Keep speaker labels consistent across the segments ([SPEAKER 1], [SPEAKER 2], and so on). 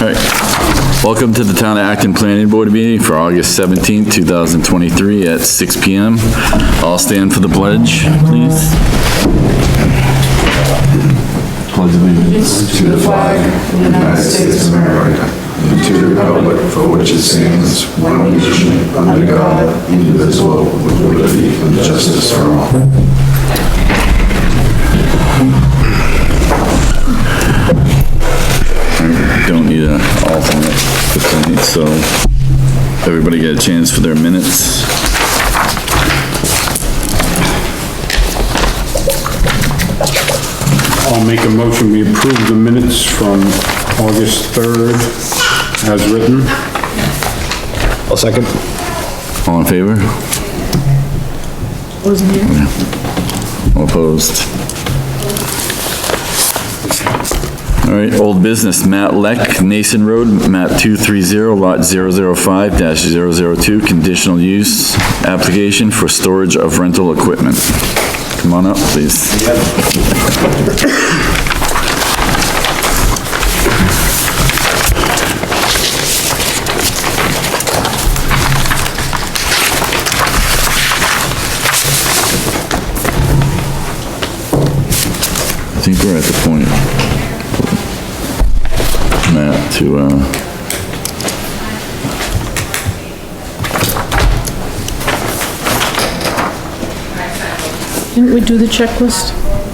[SPEAKER 1] All right. Welcome to the Town of Acton Planning Board meeting for August 17th, 2023 at 6 PM. All stand for the pledge, please. Pledge allegiance.
[SPEAKER 2] to the flag of the United States of America and to the republic for which it stands, one nation, under God, indivisible, with liberty and justice for all.
[SPEAKER 1] Don't need an alternate for tonight, so everybody get a chance for their minutes.
[SPEAKER 3] I'll make a motion, we approve the minutes from August 3rd as written.
[SPEAKER 4] I'll second.
[SPEAKER 1] All in favor? All opposed? All right, old business, Matt Leck, Nason Road, map 230, lot 005-002, conditional use application for storage of rental equipment. Come on up, please. I think we're at the point, Matt, to, uh,
[SPEAKER 5] Didn't we do the checklist?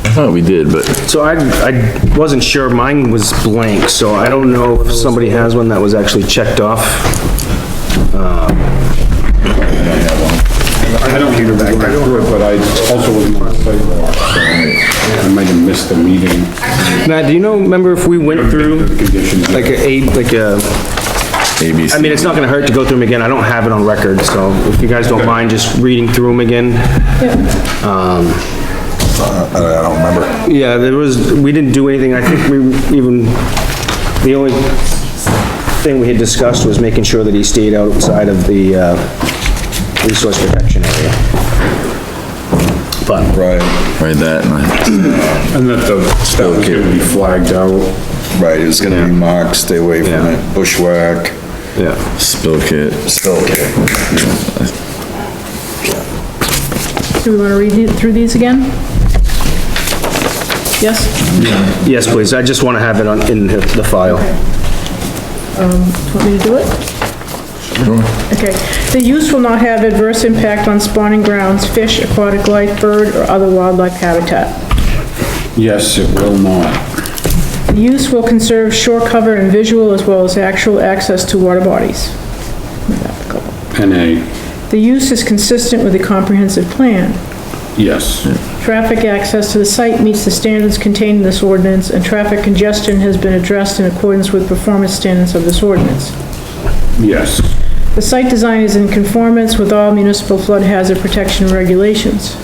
[SPEAKER 1] I thought we did, but
[SPEAKER 4] So I, I wasn't sure, mine was blank, so I don't know if somebody has one that was actually checked off.
[SPEAKER 3] I don't need to go back through it, but I also wasn't on site, so I might have missed the meeting.
[SPEAKER 4] Matt, do you know, remember if we went through,
[SPEAKER 3] The conditions.
[SPEAKER 4] like, a eight, like, a?
[SPEAKER 1] ABC.
[SPEAKER 4] I mean, it's not gonna hurt to go through them again, I don't have it on record, so if you guys don't mind just reading through them again. Um,
[SPEAKER 2] Uh, I don't remember.
[SPEAKER 4] Yeah, there was, we didn't do anything, I think we even, the only thing we had discussed was making sure that he stayed outside of the, uh, resource protection area. But,
[SPEAKER 6] Right,
[SPEAKER 1] Right, that, and I-
[SPEAKER 3] And that the, that was gonna be flagged out.
[SPEAKER 6] right, it's gonna be marked, stay away from
[SPEAKER 4] Yeah.
[SPEAKER 6] it, bushwhack,
[SPEAKER 4] yeah,
[SPEAKER 1] spill kit.
[SPEAKER 6] still okay.
[SPEAKER 5] Do we want to read it through these again? Yes?
[SPEAKER 4] yes, please, I just wanna have it on, in the file.
[SPEAKER 5] Um, Do you Want me to do it? Okay. The use will not have adverse impact on spawning grounds, fish, aquatic life, bird, or other wildlife habitat.
[SPEAKER 3] Yes, it will not.
[SPEAKER 5] The use will conserve shore cover and visual as well as actual access to water bodies.
[SPEAKER 3] NA,
[SPEAKER 5] The use is consistent with the comprehensive plan.
[SPEAKER 3] yes.
[SPEAKER 5] Traffic access to the site meets the standards contained in this ordinance, and traffic congestion has been addressed in accordance with performance standards of this ordinance.
[SPEAKER 3] Yes,
[SPEAKER 5] The site design is in conformance with all municipal flood hazard protection regulations.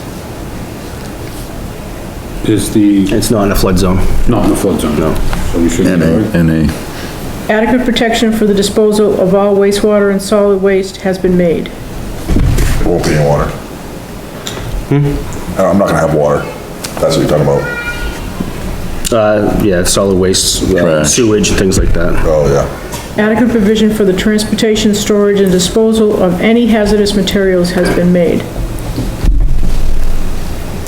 [SPEAKER 3] is the,
[SPEAKER 4] It's not in a flood zone.
[SPEAKER 3] not in the flood zone. No. So we should.
[SPEAKER 1] NA. NA.
[SPEAKER 5] Adequate protection for the disposal of all wastewater and solid waste has been made.
[SPEAKER 2] There won't be any water. Uh, I'm not gonna have water. That's what you're talking about.
[SPEAKER 4] Uh, yeah, solid waste, uh,
[SPEAKER 1] Trash.
[SPEAKER 4] sewage, and things like that.
[SPEAKER 2] Oh, yeah.
[SPEAKER 5] Adequate provision for the transportation, storage, and disposal of any hazardous materials has been made.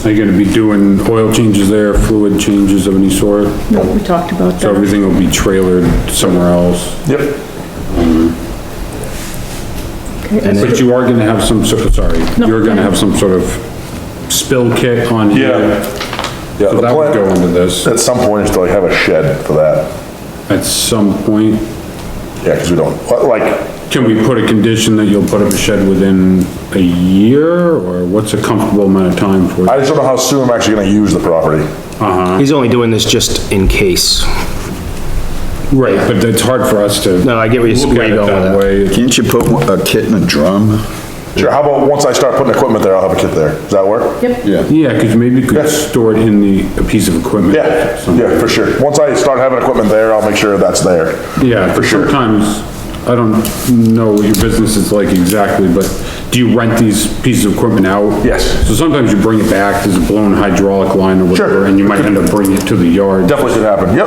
[SPEAKER 3] Are you gonna be doing oil changes there, fluid changes of any sort?
[SPEAKER 5] No, We talked about
[SPEAKER 3] So
[SPEAKER 5] that.
[SPEAKER 3] everything will be trailered somewhere else?
[SPEAKER 2] Yep.
[SPEAKER 3] But you are gonna have some sort of, sorry,
[SPEAKER 5] No.
[SPEAKER 3] you're gonna have some sort of spill kit on
[SPEAKER 2] Yeah.
[SPEAKER 3] here.
[SPEAKER 2] Yeah,
[SPEAKER 3] So
[SPEAKER 2] the
[SPEAKER 3] that would go
[SPEAKER 2] plan,
[SPEAKER 3] into this
[SPEAKER 2] at some point, is to like have a shed for that.
[SPEAKER 3] at some point.
[SPEAKER 2] Yeah, because we don't, like,
[SPEAKER 3] Can we put a condition that you'll put up a shed within a year or what's a comfortable amount of time for?
[SPEAKER 2] I
[SPEAKER 3] it?
[SPEAKER 2] just don't know how soon I'm actually gonna use the property.
[SPEAKER 4] He's only doing this just in case.
[SPEAKER 3] Right, but it's hard for us to.
[SPEAKER 4] No, I get where you're-
[SPEAKER 3] look
[SPEAKER 4] where
[SPEAKER 3] at
[SPEAKER 4] you're
[SPEAKER 3] it
[SPEAKER 4] going with
[SPEAKER 3] that
[SPEAKER 4] that.
[SPEAKER 3] way.
[SPEAKER 6] Can't you put a kit in a drum?
[SPEAKER 2] Sure, how about, once I start putting equipment there, I'll have a kit there. Does that work?
[SPEAKER 5] Yep,
[SPEAKER 3] Yeah, cause maybe you could
[SPEAKER 2] Yes.
[SPEAKER 3] store it in the, a piece of equipment.
[SPEAKER 2] Yeah,
[SPEAKER 3] somewhere.
[SPEAKER 2] yeah, for sure. Once I start having equipment there, I'll make sure that's there.
[SPEAKER 3] Yeah, for sure. Sometimes, I don't know what your business is like exactly, but do you rent these pieces of equipment out?
[SPEAKER 2] Yes.
[SPEAKER 3] So sometimes you bring it back, there's a blown hydraulic line or
[SPEAKER 2] Sure.
[SPEAKER 3] whatever, and you might end up bringing it to the yard.
[SPEAKER 2] Definitely should happen. Yep,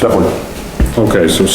[SPEAKER 2] definitely.
[SPEAKER 3] Okay, so